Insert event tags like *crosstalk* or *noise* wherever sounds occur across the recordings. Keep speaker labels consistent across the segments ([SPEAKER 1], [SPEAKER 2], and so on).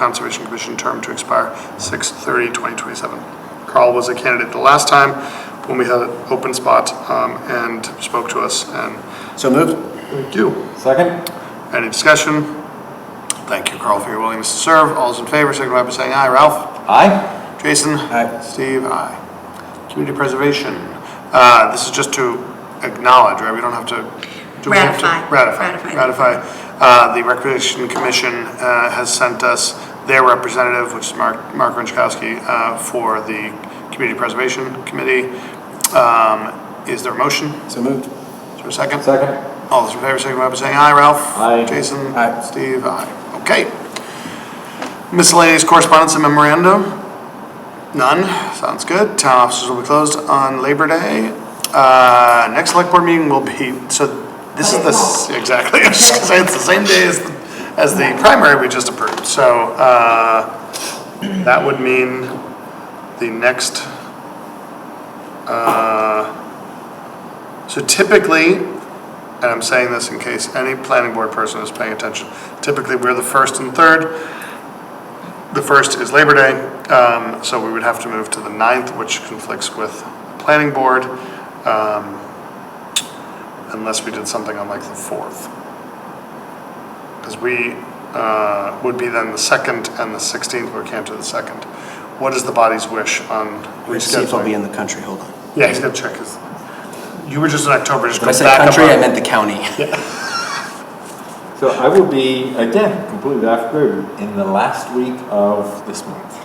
[SPEAKER 1] Conservation Commission term to expire 6/30/2027. Carl was a candidate the last time when we had an open spot um, and spoke to us, and
[SPEAKER 2] So moved.
[SPEAKER 1] thank you.
[SPEAKER 2] Second?
[SPEAKER 1] Any discussion? Thank you, Carl, for your willingness to serve. All those in favor, signify by saying aye. Ralph?
[SPEAKER 2] Aye.
[SPEAKER 1] Jason?
[SPEAKER 2] Aye.
[SPEAKER 1] Steve? Aye. Community preservation, uh, this is just to acknowledge, right? We don't have to. do we have to-
[SPEAKER 3] Ratify.
[SPEAKER 1] Ratify,
[SPEAKER 3] Ratify.
[SPEAKER 1] ratify. Uh, the Recreation Commission, uh, has sent us their representative, which is Mark, Mark Runchkowski, uh, for the Community Preservation Committee. Um, is there a motion?
[SPEAKER 2] So moved.
[SPEAKER 1] Is there a second?
[SPEAKER 2] Second?
[SPEAKER 1] All those in favor, signify by saying aye. Ralph?
[SPEAKER 2] Aye.
[SPEAKER 1] Jason?
[SPEAKER 2] Aye.
[SPEAKER 1] Steve? Aye. Okay. Miscellaneous correspondence and memorandum? None. Sounds good. Town offices will be closed on Labor Day. Uh, next select board meeting will be, so this is the, s- exactly, *laughs* I was just gonna say, it's the same day as, as the primary we just approved. So, uh, that would mean the next, uh, so typically, and I'm saying this in case any planning board person is paying attention, typically we're the first and third. The first is Labor Day, um, so we would have to move to the ninth, which conflicts with planning board, um, unless we did something on like the fourth. Because we, uh, would be then the second and the sixteenth, we can't do the second. What is the body's wish on rescheduling?
[SPEAKER 2] See if I'll be in the country, hold on.
[SPEAKER 1] Yeah, he's gonna check his, you were just in October, just go
[SPEAKER 2] When I
[SPEAKER 1] back
[SPEAKER 2] said
[SPEAKER 1] up.
[SPEAKER 2] country, I
[SPEAKER 1] on-
[SPEAKER 2] meant the county.
[SPEAKER 4] So I will be, again, completely off grid in the last week of this month.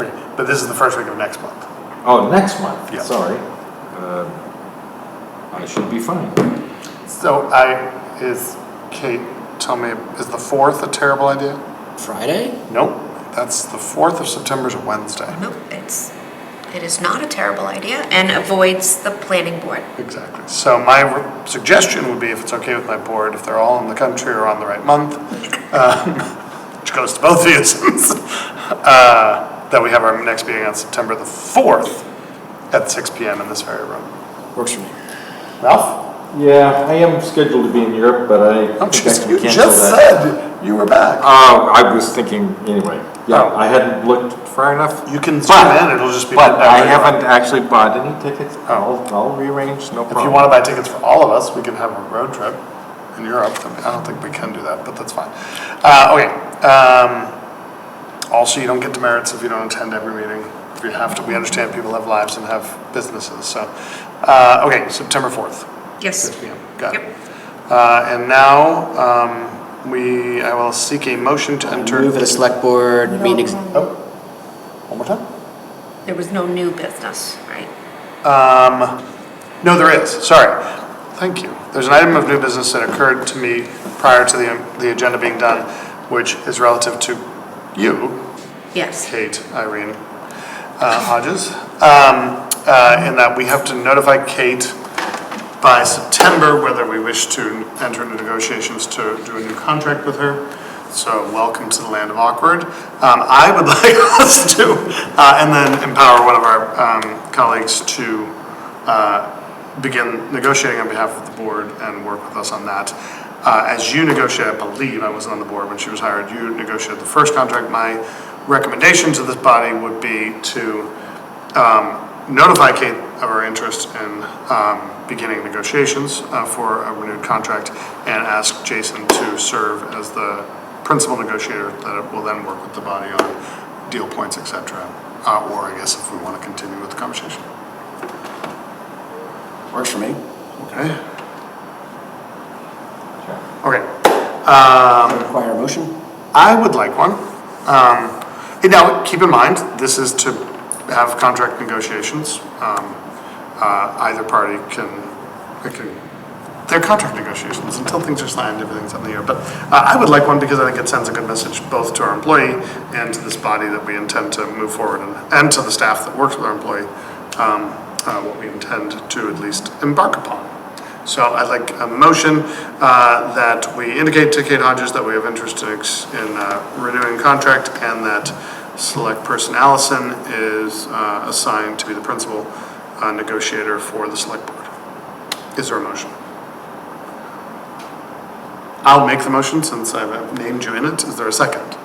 [SPEAKER 1] Okay, But this is the first week of next month.
[SPEAKER 4] Oh, next
[SPEAKER 1] Yeah.
[SPEAKER 4] month, sorry. Um, I should be fine.
[SPEAKER 1] So I, is, Kate, tell me, is the fourth a terrible idea?
[SPEAKER 2] *laughs* Friday?
[SPEAKER 1] Nope, Mm-hmm. that's, the fourth of September is a Wednesday.
[SPEAKER 3] Nope, it's, it is not a terrible idea and avoids the planning board.
[SPEAKER 1] Exactly. So my r- suggestion would be, if it's okay with my board, if they're all in the country or on the right *laughs* month, um, which goes to both of you, *laughs* since, uh, that we have our next meeting on September the fourth at six P M in this very room. Oh,
[SPEAKER 2] Works for me.
[SPEAKER 1] Ralph?
[SPEAKER 4] Yeah, I am scheduled to be in Europe, but I think I
[SPEAKER 1] You
[SPEAKER 4] can cancel
[SPEAKER 1] Oh, just
[SPEAKER 4] that.
[SPEAKER 1] said you were back.
[SPEAKER 4] Uh, I was thinking, anyway, yeah,
[SPEAKER 1] Oh.
[SPEAKER 4] I hadn't looked far enough.
[SPEAKER 1] You can zoom
[SPEAKER 4] But-
[SPEAKER 1] in, it'll just be.
[SPEAKER 4] But I
[SPEAKER 1] whenever you want.
[SPEAKER 4] haven't actually bought any tickets. I'll, I'll rearrange, no problem.
[SPEAKER 1] If you want to buy tickets for all of us, we can have a road trip in Europe. I mean, I don't think we can do that, but that's fine. Uh, okay, um, also, you don't get demerits if you don't attend every meeting. If you have to, we understand people have lives and have businesses, so. Uh, okay, September fourth, six
[SPEAKER 3] Yes.
[SPEAKER 1] P M, got it.
[SPEAKER 3] Yep.
[SPEAKER 1] Uh, and now, um, we, I will seek a motion to enter.
[SPEAKER 2] Move at a select board meeting.
[SPEAKER 1] Oh, One more time?
[SPEAKER 3] There was no new business, right?
[SPEAKER 1] Um, no, there is, sorry. Thank you. There's an item of new business that occurred to me prior to the, the agenda being done, which is relative to you,
[SPEAKER 3] Yes.
[SPEAKER 1] Kate, Irene, uh, Hodges. Um, uh, in that we have to notify Kate by September whether we wish to enter into negotiations to do a new contract with her. So welcome to the land of awkward. Um, I would *laughs* like us to, uh, and then empower one of our, um, colleagues to, uh, begin negotiating on behalf of the board and work with us on that. Uh, as you negotiate, I believe, I wasn't on the board when she was hired, you negotiated the first contract. My recommendation to this body would be to, um, notify Kate of our interest in um, beginning negotiations uh, for a renewed contract and ask Jason to serve as the principal negotiator that will then work with the body on deal points, et cetera. Uh, Or I guess if we want to continue with the conversation.
[SPEAKER 2] Works for me.
[SPEAKER 1] Okay.
[SPEAKER 4] Sure.
[SPEAKER 1] Okay.
[SPEAKER 2] Require a motion?
[SPEAKER 1] I would like one. Um, and Now, keep in mind, this is to have contract negotiations. Um, uh, Either party can, it can, they're contract negotiations until things are signed, everything's up in the air. But uh, I would like one because I think it sends a good message both to our employee and to this body that we intend to move forward and, and to the staff that works with our employee, um, uh, what we intend to at least embark upon. So I'd like a motion uh, that we indicate to Kate Hodges that we have interest in ex- in uh, renewing contract and that select person Allison is uh, assigned to be the principal uh, negotiator for the select board. Is there a motion? I'll make the motion since I've named you in it. Is there a second?